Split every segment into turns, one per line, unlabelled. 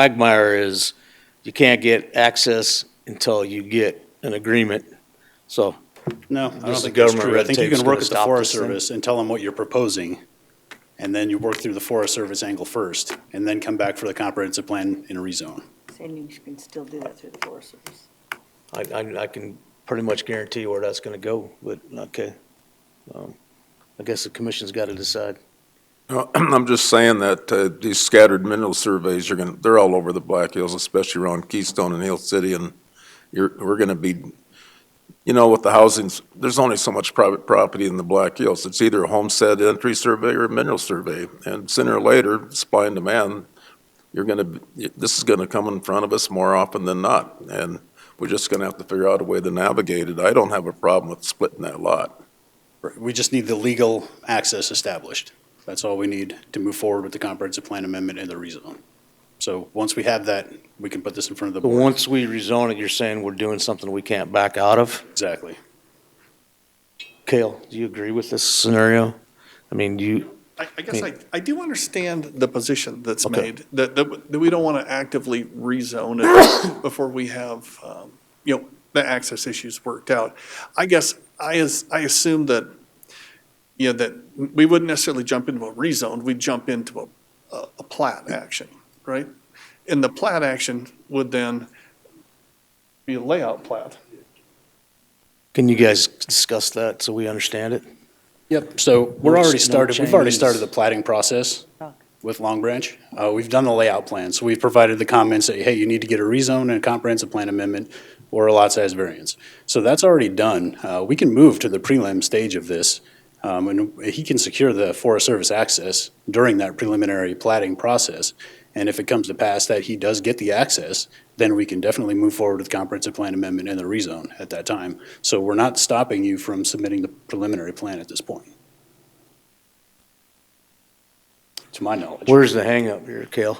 quagmire is you can't get access until you get an agreement. So,
No, I don't
is
think that's
government
true. I
red
think you
tape's
can work
gonna
with the
stop
Forest
this thing.
Service and tell them what you're proposing, and then you work through the Forest Service angle first, and then come back for the comprehensive plan in a rezone.
Saying you can still do that through the Forest Service.
I, I, I can pretty much guarantee where that's gonna go, but, okay. Um, I guess the commission's gotta decide.
No, I'm just saying that uh, these scattered mineral surveys are going, they're all over the Black Hills, especially around Keystone and Hill City, and you're, we're going to be, you know, with the housings, there's only so much private property in the Black Hills. It's either a homestead entry survey or a mineral survey, and sooner or later, supply and demand, you're going to, this is going to come in front of us more often than not, and we're just going to have to figure out a way to navigate it. I don't have a problem with splitting that lot.
We just need the legal access established. That's all we need to move forward with the comprehensive plan amendment and the rezone. So once we have that, we can put this in front of the
But
board.
once we rezone it, you're saying we're doing something we can't back out of?
Exactly.
Kale, do you agree with this scenario? I mean, you,
I, I guess I,
mean-
I do understand the position that's
Okay.
made, that, that, that we don't want to actively rezone it before we have, um, you know, the access issues worked out. I guess I, as, I assume that, you know, that we wouldn't necessarily jump into a rezone, we'd jump into a, a, a plat action, right? And the plat action would then be a layout plat.
can you guys discuss that so we understand it?
Yep, so we're
No
already
ch- no
started, we've already
changes.
started the plating process with Long Branch. Uh, we've done the layout plan, so we've provided the comments that, hey, you need to get a rezone and a comprehensive plan amendment or a lot size variance. So that's already done. Uh, we can move to the prelim stage of this. Um, and he can secure the Forest Service access during that preliminary plating process. And if it comes to pass that he does get the access, then we can definitely move forward with comprehensive plan amendment and the rezone at that time. So we're not stopping you from submitting the preliminary plan at this point. To my knowledge.
Where's the hangup here, Kale?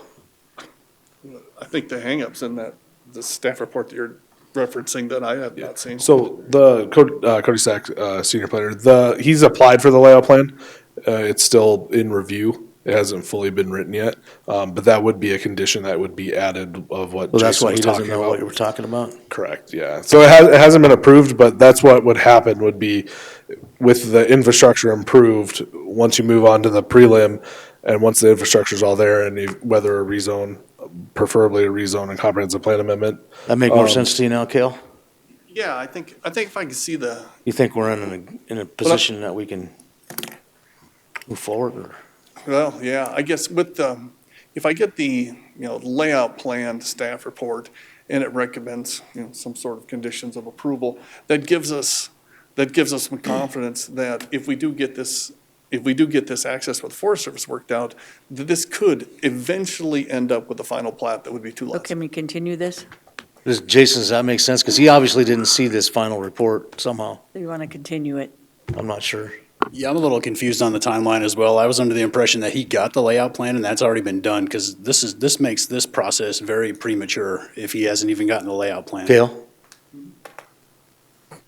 I think the hangup's in that, the staff report that you're referencing that I have not seen.
So the Cody, uh, Cody Sack, uh, senior planner, the he's applied for the layout plan. Uh, it's still in review. It hasn't fully been written yet, um, but that would be a condition that would be added of what.
Well, that's
Jason
why he
was
doesn't
talking
know
about.
what we're talking about.
Correct, yeah. So it has, it hasn't been approved, but that's what would happen would be with the infrastructure improved, once you move on to the prelim and once the infrastructure's all there and if- whether a rezone, preferably a rezone and comprehensive plan amendment.
That make more
Um,
sense to you now, Kale?
Yeah, I think, I think if I can see the,
You think we're in a, in a position that we can move forward or?
Well, yeah, I guess with the, if I get the, you know, layout plan staff report and it recommends, you know, some sort of conditions of approval, that gives us, that gives us some confidence that if we do get this, if we do get this access with Forest Service worked out, that this could eventually end up with a final plat that would be two
So
lots.
can we continue this?
Does- Jason, does that make sense? Because he obviously didn't see this final report somehow.
Do you want to continue it?
I'm not sure.
Yeah, I'm a little confused on the timeline as well. I was under the impression that he got the layout plan and that's already been done because this is, this makes this process very premature if he hasn't even gotten the layout plan.
Kale?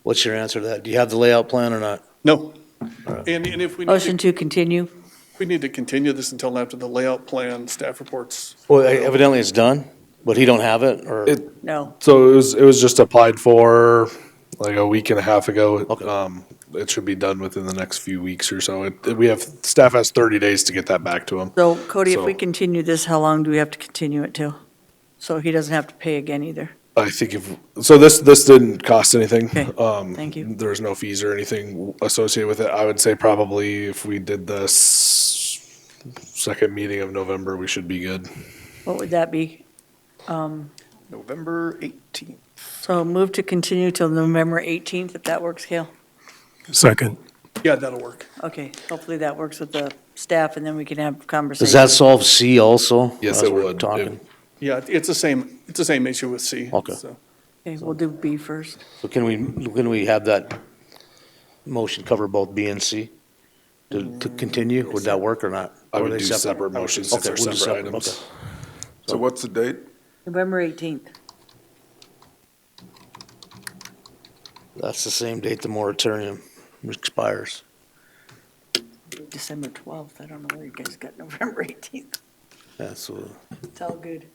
What's your answer to that? Do you have the layout plan or not?
No. And, and if we need
Motion
to,
to continue?
we need to continue this until after the layout plan staff reports.
Well, evidently it's done, but he don't have it or?
It-
No.
So it was, it was just applied for like a week and a half ago. Um, it should be done within the next few weeks or so. It, we have, staff has thirty days to get that back to them.
So Cody, if we
So-
continue this, how long do we have to continue it till? So he doesn't have to pay again either.
I think if, so this, this didn't cost anything.
Okay,
Um,
thank you.
There's no fees or anything associated with it. I would say probably if we did this second meeting of November, we should be good.
What would that be?
November 18th.
So move to continue till November 18th, if that works, Cale?
Second.
Yeah, that'll work.
Okay, hopefully that works with the staff, and then we can have
Does
conversations.
that solve C also?
Yes,
As
it
we're
would. It-
Talking.
Yeah, it's the same, it's the same issue with C.
Okay.
so.
Okay, we'll do B first.
So can we, can we have that motion cover both B and C? To, to continue? Would that work or not?
I
Or
would
they
do separate motions since
Okay,
they're
we'll do
separate
okay.
items.
So what's the date?
November 18th.
That's the same date the moratorium expires.
December 12th, I don't know where you guys got November 18th.
Absolutely.
It's all good.